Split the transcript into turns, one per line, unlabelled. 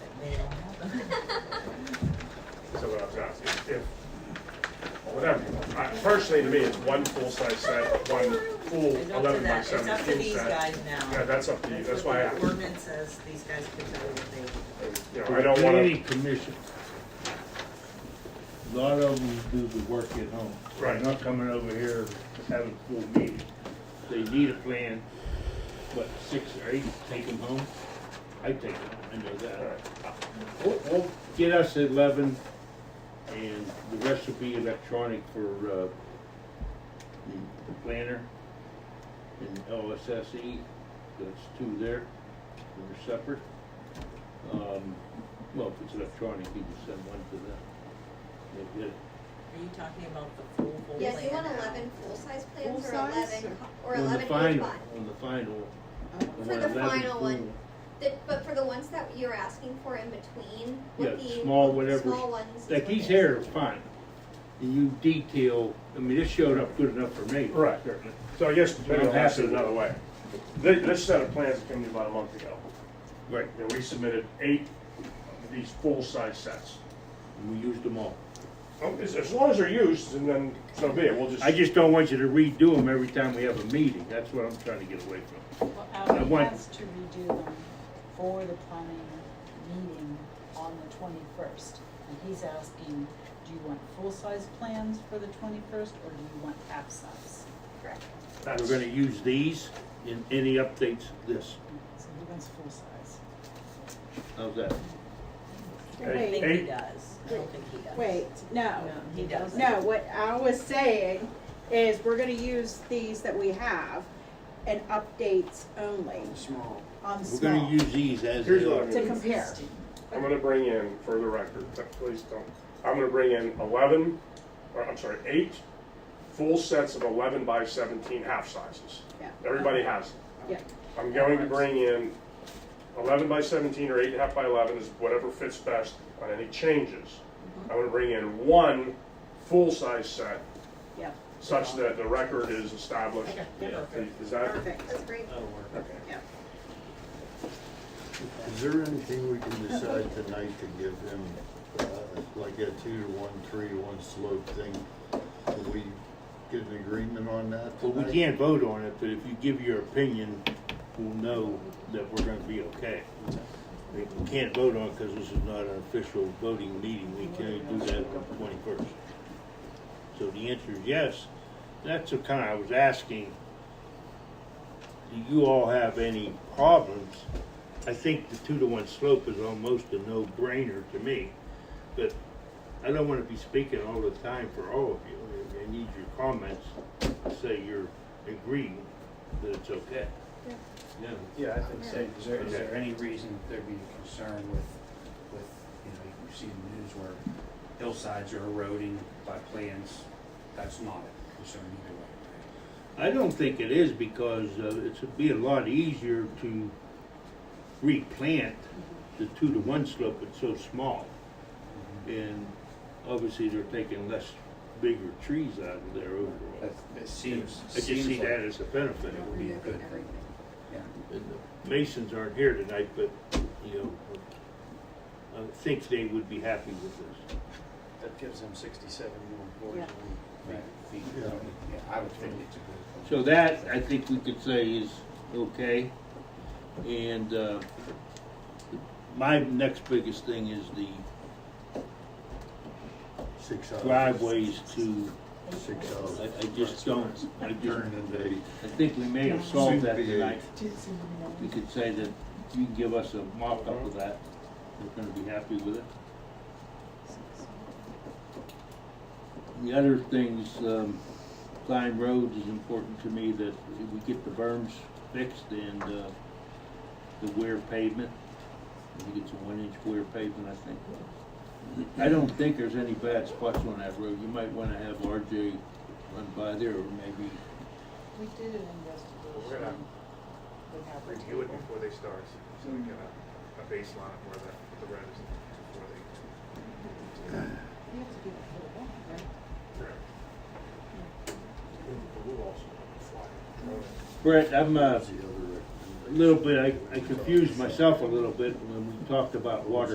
personally to me, it's one full-size set, one full
It's up to
eleven by
that, it's up to
seventeen
these
set.
guys
Yeah,
now.
that's up to you, that's
what
why I,
The ordinance says these guys can tell you what they,
you know, I don't wanna,
Planning commission. A lot of them do the work at home. They're
Right.
Not coming over here to have a full meeting. They need a plan, but six or eight, take them home. I take them, I know that. We'll, we'll get us eleven, and the rest will be electronic for, uh, the- the planner and LSSE, E. that's two there, they're separate. Um, well, if it's electronic, you can send one to them. They get it.
are you talking about the full, full plan?
Yes, you want eleven full-size plans or
Full-size?
eleven, co- or
On the
eleven each
final-
one?
On the final.
For
one
the
11
final
pool.
one, The- But for the ones that you're asking for in between,
Yeah,
with the.
small, whatever.
Small ones. is
Like
what
these
it is.
here are fine. And you detail, I mean, this showed up good enough for me.
Right.
certainly.
so I guess maybe I'll
I'm
ask
happy
it
with
another
it.
way. This, this set of plans came to me about a month ago,
Right,
you know, we submitted eight of these full-size sets.
and we used them all.
Oh, As, as long as they're used, and then so be it, we'll just.
I just don't want you to redo them every time we have a meeting, that's what I'm trying to get away from.
Well,
I
Al
want-
has to redo them for the planning meeting on the twenty-first. And he's asking, do you want full-size plans for the twenty-first, or do you want half-size?
Correct.
That's-
We're gonna use these in any updates, this,
So he wants full-size.
how's that?
Hey,
I think he
hey,
does, I don't think he does.
Wait, no.
No, he doesn't.
No, what I was saying is we're gonna use these that we have and updates only
small.
on
We're gonna
small
use these as
Here's
they
what
are.
I'm
to compare.
I'm gonna bring in, for the record, but please don't, I'm gonna bring in eleven, or I'm sorry, eight full sets of eleven by seventeen half sizes.
Yeah.
Everybody has them.
Yeah.
I'm going to bring in eleven by seventeen or eight and a half by eleven is whatever fits best on any changes. I'm gonna bring in one full-size set
Yeah,
such that the record is established.
Okay,
Yeah.
perfect.
Is that?
perfect.
That's great.
Okay.
Is there anything we can decide tonight to give him, uh, like a two to one, three to one slope thing? Can we get an agreement on that
Well, we
tonight?
can't vote on it, but if you give your opinion, we'll know that we're gonna be okay. We we can't vote on it because this is not an official voting meeting, we can only do that on the twenty-first. So the answer is yes, that's the kind I was asking. Do you all have any problems? I think the two to one slope is almost a no-brainer to me, but I don't wanna be speaking all the time for all of you. I- I need your comments to say you're agreeing that it's okay. Yeah.
Yeah, I think so. Is there, is
Okay.
there any reason there'd be a concern with, with, you know, you see the news where hillsides are eroding by plans? That's not a concern either way.
I don't think it is because uh, it would be a lot easier to replant the two to one slope, it's so small. And obviously they're taking less bigger trees out of there
right?
overall.
That, it seems,
I just see
seems like
that
it
as a benefit.
would be a good thing. Yeah.
And the Masons aren't here tonight, but, you know, I think they would be happy with this.
That gives them sixty-seven more
Yeah.
boards.
Right.
Yeah.
Yeah, I would think it's a good.
So that, I think we could say is okay. And, uh, my next biggest thing is the
Six houses.
driveways to
Six
I,
houses.
I just don't, I just,
Turn into eight.
I think we may have solved that
Soon to be
tonight.
eight.
We could say that you can give us a mock-up of that, we're gonna be happy with it. The other things, um, Klein Roads is important to me that we get the berms fixed and, uh, the wear pavement. I think it's a one-inch wear pavement, I think. I don't think there's any bad spots on that road. You might wanna have RJ run by there or maybe
We did an investigation. We have a
review it
table.
before they start, so we get a, a baseline of where the, the red is before they.
You have to do the whole one, right?
Brett, I'm uh,
The other-
a little bit, I I confused myself a little bit when we talked about water